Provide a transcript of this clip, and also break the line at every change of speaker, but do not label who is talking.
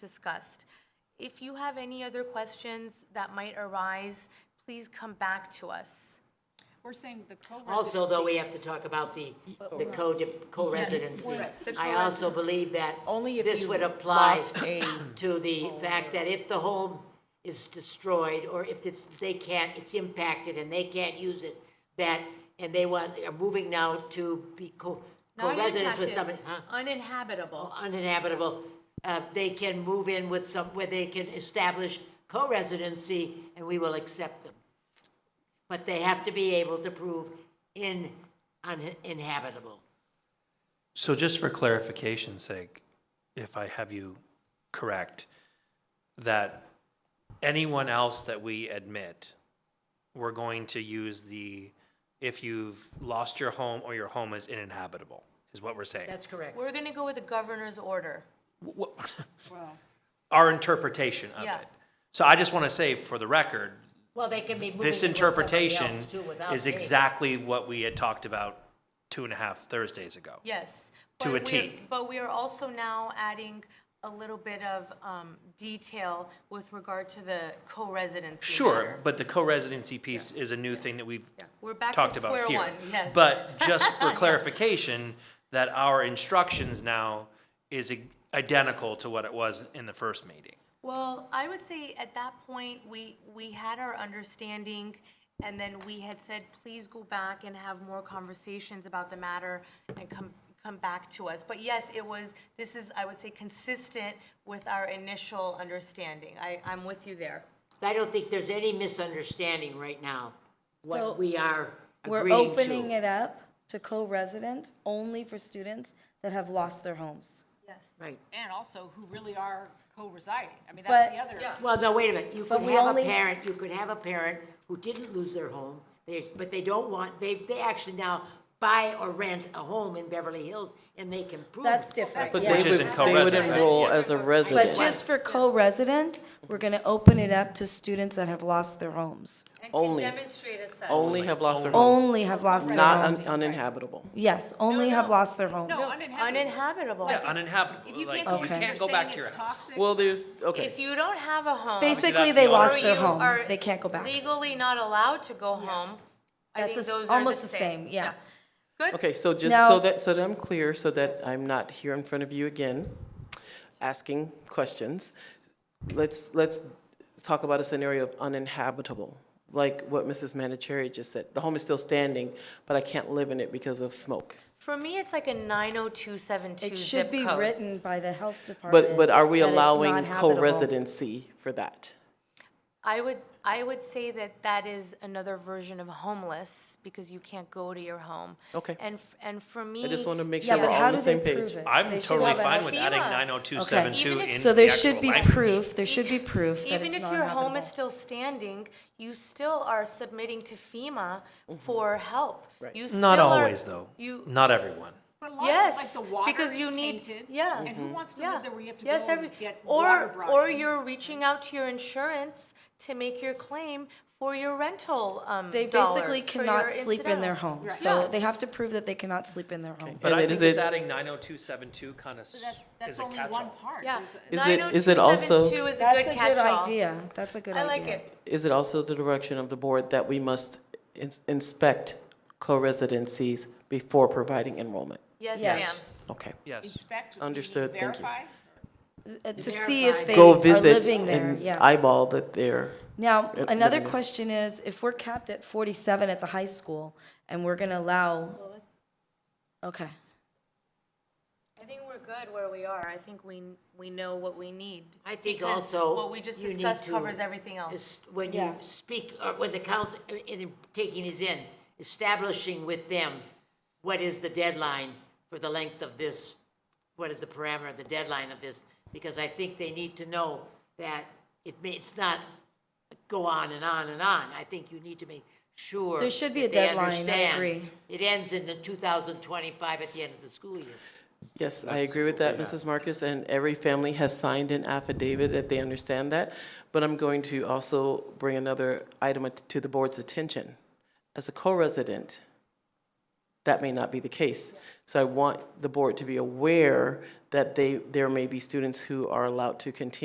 discussed. If you have any other questions that might arise, please come back to us.
We're saying the co-residency.
Also, though, we have to talk about the, the co- co-residency.
The
I also believe that
Only if
this
you
would apply
lost a-
to the fact that if the home is destroyed, or if it's, they can't, it's impacted and they can't use it, that, and they want, are moving now to be co-
Not
co-residents with
uninhabited,
somebody, huh?
Uninhabitable.
uninhabitable, uh, they can move in with some, where they can establish co-residency, and we will accept them. But they have to be able to prove in, uninhabitable.
So just for clarification's sake, if I have you correct, that anyone else that we admit, we're going to use the, if you've lost your home or your home is uninhabitable, is what we're saying.
That's correct.
We're going to go with the governor's order.
Wh- wh-
Well,
Our interpretation of
Yeah.
it. So I just want to say for the record,
Well, they can be moving in with
this
somebody
interpretation
else too without
is
paying.
exactly what we had talked about two and a half Thursdays ago.
Yes.
To
but
a
we're-
T.
But we are also now adding a little bit of um, detail with regard to the co-residency.
Sure,
matter.
but the co-residency piece is a new thing that we've
We're back to
talked about
square
here.
one, yes.
But just for clarification, that our instructions now is i- identical to what it was in the first meeting.
Well, I would say at that point, we, we had our understanding, and then we had said, please go back and have more conversations about the matter and come, come back to us. But yes, it was, this is, I would say, consistent with our initial understanding. I, I'm with you there.
I don't think there's any misunderstanding right now,
So,
what we are
We're
agreeing
opening
to.
it up to co-resident only for students that have lost their homes.
Yes.
Right.
and also who really are co-residing. I mean, that's the
But-
other.
Well, no, wait a minute, you
But
could
we
have a
only-
parent, you could have a parent who didn't lose their home, they, but they don't want, they, they actually now buy or rent a home in Beverly Hills, and they can prove.
That's different,
But
yeah.
Which
They
is
would-
in
They would
co-residence.
enroll as a resident.
But just for co-resident, we're gonna open it up to students that have lost their homes.
And can
Only.
demonstrate as such.
Only have lost their homes,
Only have lost their
not un-
homes.
uninhabitable.
Yes, only have lost their homes.
No, uninhabited.
Uninhabitable.
Yeah, uninhabitable,
If you
like,
can't
you
go,
can't
if
go
you're
back
saying
to your
it's
house.
toxic.
Well, there's, okay,
If you don't have a home.
Basically,
that's
they
the
lost
or
their
you
home.
are
They can't go back.
Legally not allowed to go home. I
That's
think
a s-
those are
almost the same, yeah.
Good.
okay, so just
Now-
so that, so that I'm clear, so that I'm not here in front of you again, asking questions. Let's, let's talk about a scenario of uninhabitable, like what Mrs. Manicherry just said. The home is still standing, but I can't live in it because of smoke.
For me, it's like a 90272
It
zip
should be
code.
written by the health department.
But, but are we
that it's
allowing
not habitable.
co-residency for that?
I would I would say that that is another version of homeless because you can't go to your home.
Okay.
And f- and for me,
I just want to make
Yeah,
sure we're
but
all
how
on
do
the
they
same page.
prove it? They
I'm
should
totally
have a-
fine with adding
FEMA.
90272
Okay.
in
So there
the
should
actual
be
language.
proof, there should be proof that
even
it's
if
not
your home is
habitable.
still standing, you still are submitting to FEMA
Mm-hmm.
for help. Right. You still
Not
are-
always, though.
You
Not everyone.
But a lot of it,
Yes,
like the water
because
is
you need-
tainted,
yeah. Mm-hmm.
And who wants to
Yeah.
live there where you have to
Yes,
go
every-
and get
or-
water
Or
brought in?
you're reaching out to your insurance to make your claim for your rental, um,
They basically
dollars, for your
cannot sleep in their
incidentals.
home,
Right.
so
Yeah.
they have to prove that they cannot sleep in their home.
But
And
I
then
think
is
it's
it-
adding 90272 kind of
That's,
is
that's
a
only one
catch-all.
part.
Yeah.
There's-
Is it- is it also-
90272 is a
That's
good
a good
catch-all.
idea, that's a good
I
idea.
like it.
Is it also the direction of the board that we must ins- inspect co-residencies before providing enrollment?
Yes, ma'am.
Yes.
Okay.
Yes.
Inspect.
Understood, thank you.
verify.
Uh, To see if they
Go
are
visit
living there,
and
yes.
eyeball that they're,
Now, another
Uh, living there.
question is, if we're capped at forty-seven at the high school, and we're gonna allow, okay,
I think we're good where we are. I think we, we know what we need.
I think
Because
also.
What we just
you need
discussed
to-
covers everything else.
is When you
Yeah.
speak, or when the council, uh, in, in taking these in, establishing with them what is the deadline for the length of this, what is the parameter, the deadline of this, because I think they need to know that it may, it's not go on and on and on. I think you need to make sure.
There should be
that
a
they
deadline, I
understand
agree.
It ends in the two thousand twenty-five at the end of the school year.
yes, I agree with that, Mrs. Marcus, and every family has signed an affidavit that they understand that. But I'm going to also bring another item at- to the board's attention. As a co-resident, that may not be the case. So I want the board to be aware that they, there may be students who are allowed to continue